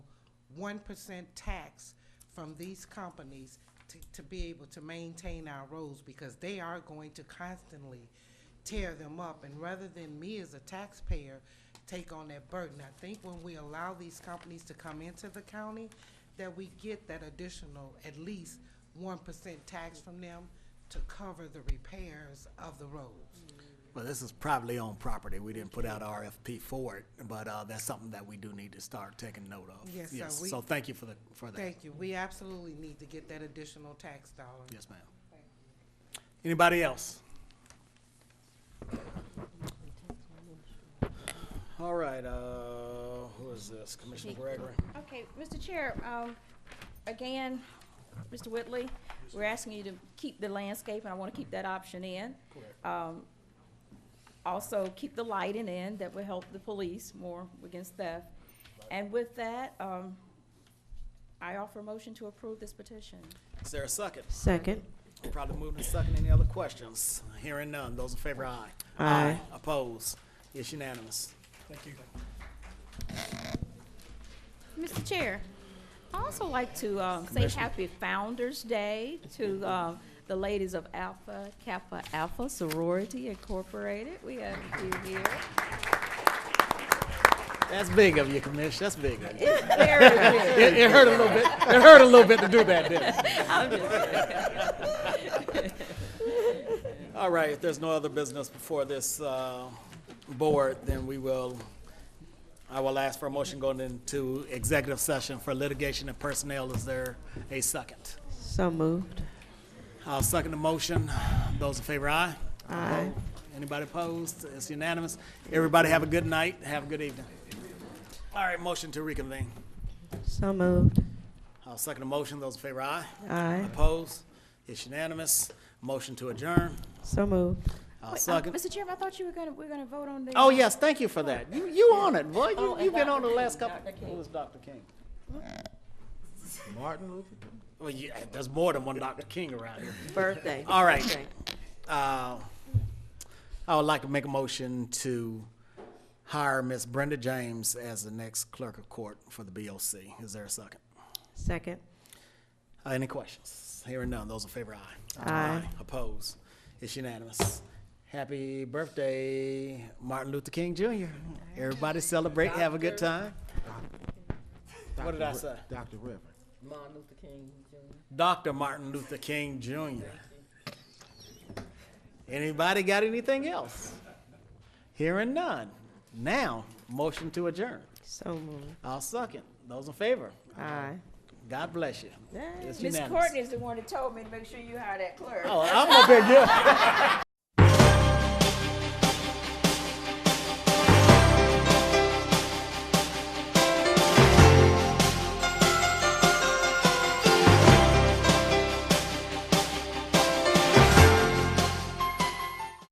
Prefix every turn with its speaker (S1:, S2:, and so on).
S1: one percent tax from these companies to, to be able to maintain our roads, because they are going to constantly tear them up, and rather than me as a taxpayer take on that burden, I think when we allow these companies to come into the county, that we get that additional, at least one percent tax from them to cover the repairs of the roads.
S2: Well, this is privately owned property. We didn't put out RFP for it, but uh, that's something that we do need to start taking note of.
S1: Yes, sir. We-
S2: So thank you for the, for that.
S1: Thank you. We absolutely need to get that additional tax dollar.
S2: Yes, ma'am. Anybody else? All right, uh, who is this? Commissioner Gregory?
S3: Okay, Mr. Chair, um, again, Mr. Whitley, we're asking you to keep the landscape, and I want to keep that option in. Um, Also, keep the lighting in, that will help the police more against theft. And with that, um, I offer a motion to approve this petition.
S2: Is there a second?
S4: Second.
S2: Probably moving to second. Any other questions? Hearing none. Those in favor, aye.
S4: Aye.
S2: Oppose? It's unanimous. Thank you.
S3: Mr. Chair, I also like to um, say Happy Founder's Day to um, the ladies of Alpha Kappa Alpha Sorority Incorporated. We have a few here.
S2: That's big of you, Commissioner. That's big of you. It,
S3: Very good.
S2: it hurt a little bit. It hurt a little bit to do that, didn't it?
S3: I'm just-
S2: All right, if there's no other business before this uh, board, then we will, I will ask for a motion going into executive session for litigation and personnel. Is there a second?
S4: So moved.
S2: I'll second the motion. Those in favor, aye? Aye. Anybody opposed? It's unanimous. Everybody have a good night. Have a good evening. All right, motion to reconvene.
S4: So moved.
S2: I'll second the motion. Those in favor, aye?
S4: Aye.
S2: Opposed? It's unanimous. Motion to adjourn.
S4: So moved.
S2: I'll
S3: Wait, um,
S2: second.
S3: Mr. Chairman, I thought you were gonna, we are gonna vote on the.
S2: Oh, yes, thank you for that. You, you on it, boy.
S3: Oh,
S2: You,
S3: and
S2: you've been
S3: Dr.
S2: on the
S3: King,
S2: last couple.
S3: Dr. King.
S2: Who was Dr. King? Martin Luther? Well, yeah, there's more than one Dr. King around here.
S4: Birthday.
S2: All right. Uh, I would like to make a motion to hire Miss Brenda James as the next clerk of court for the BOC. Is there a second?
S4: Second.
S2: Uh, Any questions? Hearing none, those in favor, aye.
S4: Aye.
S2: Opposed? It's unanimous. Happy birthday, Martin Luther King Jr. Everybody celebrate, have a good time. What did I say?
S5: Dr. Reverend.
S2: Dr. Martin Luther King Jr. Anybody got anything else? Hearing none. Now, motion to adjourn.
S4: So moved.
S2: I'll second. Those in favor,
S4: Aye.
S2: God bless you. It's
S3: Miss
S2: unanimous.
S3: Courtney is the one that told me to make sure you hire that clerk.
S2: Oh, I'm up here, yeah.